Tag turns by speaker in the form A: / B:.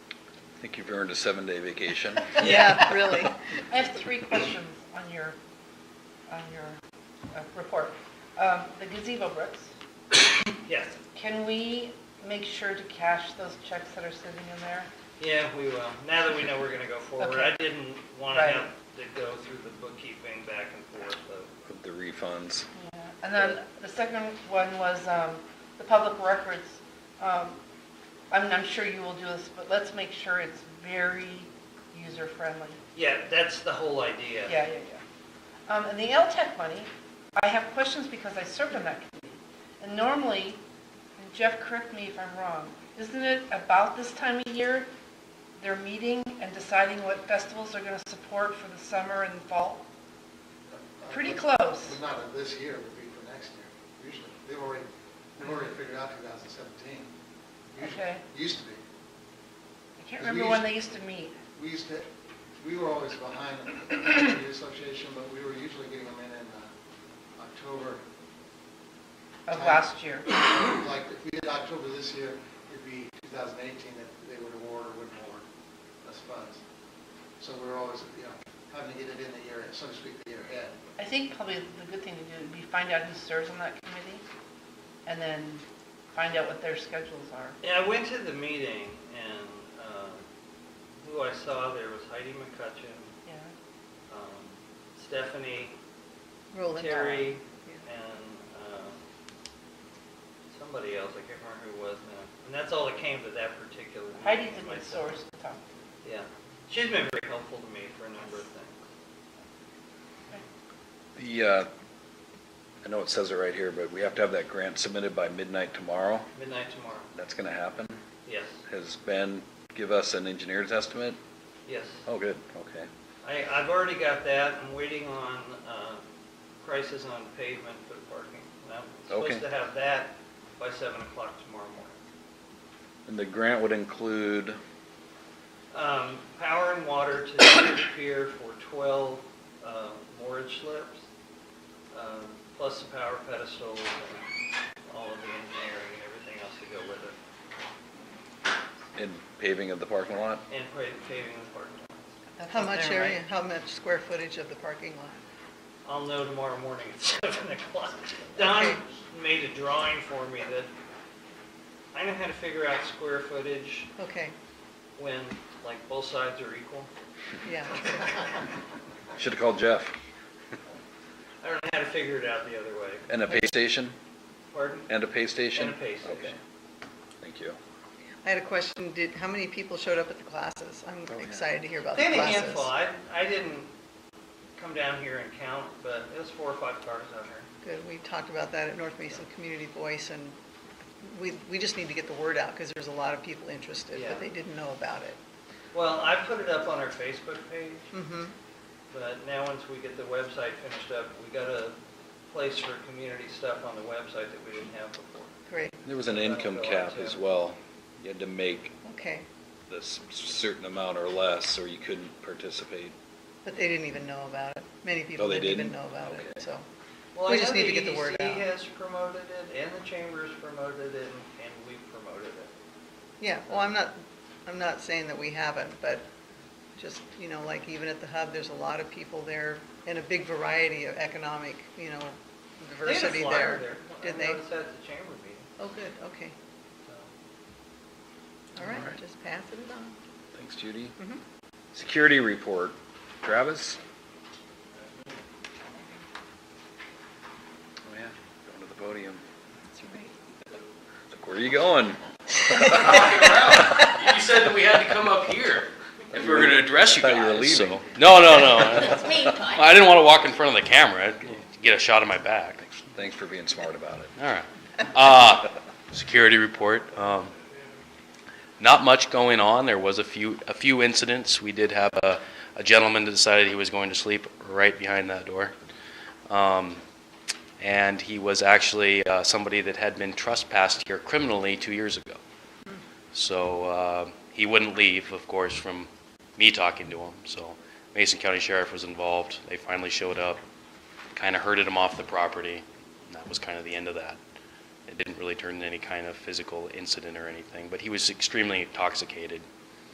A: think you've earned a seven-day vacation.
B: Yeah, really.
C: I have three questions on your, on your uh, report. Um, The gazebo bricks,
D: Yes,
C: can we make sure to cash those checks that are sitting in there?
D: yeah, we will. Now that we know we're gonna go forward,
C: Okay.
D: I didn't want to
C: Right.
D: have to go through the bookkeeping back and forth of,
A: The refunds.
C: And then the second one was um, the public records. Um, I'm I'm sure you will do this, but let's make sure it's very user-friendly.
D: yeah, that's the whole idea.
C: Yeah, yeah, yeah. Um, and the LTAC money, I have questions because I served on that committee. And normally, and Jeff, correct me if I'm wrong, isn't it about this time of year, they're meeting and deciding what festivals they're gonna support for the summer and fall? Pretty close.
E: But not of this year, it would be for next year, usually. They've already, they've already figured out 2017. Usually-
C: Okay.
E: Used to be.
C: I can't remember when they used to meet.
E: We used to, we were always behind the community association, but we were usually getting them in in uh, October.
C: Of last year.
E: Like, if we did October this year, it'd be 2018 that they would award or wouldn't award us funds. So we were always, you know, having to get it in the year, so to speak, the year ahead.
C: I think probably the good thing to do would be find out who serves on that committee, and then find out what their schedules are.
D: Yeah, I went to the meeting and, um, who I saw there was Heidi McCutcheon,
C: Yeah.
D: um, Stephanie,
B: Rolling
D: Terry,
B: Yeah.
D: and, um, somebody else, I can't remember who it was now. And that's all that came to that particular meeting.
C: Heidi's a good
D: myself.
C: source to talk to.
D: Yeah, she's been very helpful to me for a number of things.
A: The, uh, I know it says it right here, but we have to have that grant submitted by midnight tomorrow.
D: Midnight tomorrow,
A: That's going to happen.
D: yes,
A: Has Ben give us an engineer's estimate?
D: yes.
A: Oh, good, okay.
D: I, I've already got that, I'm waiting on, uh, prices on pavement for the parking. And I'm
A: Okay.
D: supposed to have that by seven o'clock tomorrow morning.
A: And the grant would include,
D: Um, power and water to the pier for twelve, uh, mortgage slips, um, plus the power pedestals and all of the engineering and everything else to go with it,
A: in paving of the parking lot?
D: and pa- paving the parking lot.
C: That's
B: How
C: up
B: much
C: there, right?
B: area, how much square footage of the parking lot?
D: I'll know tomorrow morning at seven o'clock. Don
B: Okay.
D: made a drawing for me that, I know how to figure out square footage
B: Okay,
D: when, like, both sides are equal.
B: yeah.
A: Should have called Jeff.
D: I don't know how to figure it out the other way.
A: And a pay station?
D: Pardon?
A: And a pay station?
D: And a pay station.
A: Okay. Thank you.
B: I had a question, did, how many people showed up at the classes? I'm
A: Oh, yeah.
B: excited to hear about
D: They
B: the
D: had a
B: classes.
D: handful. I, I didn't come down here and count, but it was four or five cars out here.
B: Good, we talked about that at North Mason Community Voice, and we, we just need to get the word out, because there's a lot of people interested,
D: Yeah.
B: but they didn't know about it.
D: Well, I put it up on our Facebook page,
B: Mm-hmm,
D: but now once we get the website finished up, we got a place for community stuff on the website that we didn't have before.
B: great,
A: There was an income cap as well. You had to make
B: okay.
A: this certain amount or less, or you couldn't participate.
B: But they didn't even know about it. Many people
A: Oh, they
B: didn't even
A: didn't?
B: know about it,
A: Okay.
B: so.
D: Well,
B: We
D: I
B: just
D: know
B: need to get the word
D: EDC
B: out.
D: has promoted it, and the chamber's promoted it, and- and we've promoted it.
B: Yeah, well, I'm not, I'm not saying that we haven't, but just, you know, like even at the hub, there's a lot of people there and a big variety of economic, you know,
D: They had a
B: diversity
D: flyer
B: there.
D: I
B: Did they?
D: noticed that at the chamber meeting,
B: Oh, good, okay.
D: so.
B: All
A: Alright.
B: right, just pass it on.
A: Thanks, Judy.
B: Mhm.
A: Security report. Travis? Oh, yeah, going to the podium.
B: That's right.
A: Look, where are you going?
F: You said that we had to come up here if we were gonna address you
A: I thought you were
F: guys, so-
A: leaving.
F: No, no, no. I didn't wanna walk in front of the camera, I'd get a shot of my back.
A: Thanks for being smart about it.
F: Alright. Uh, security report, um, not much going on. There was a few, a few incidents. We did have a, a gentleman that decided he was going to sleep right behind that door. Um, and he was actually, uh, somebody that had been trespassed here criminally two years ago. So, uh, he wouldn't leave, of course, from me talking to him, so Mason County Sheriff was involved. They finally showed up, kinda herded him off the property, and that was kinda the end of that. It didn't really turn into any kind of physical incident or anything, but he was extremely intoxicated.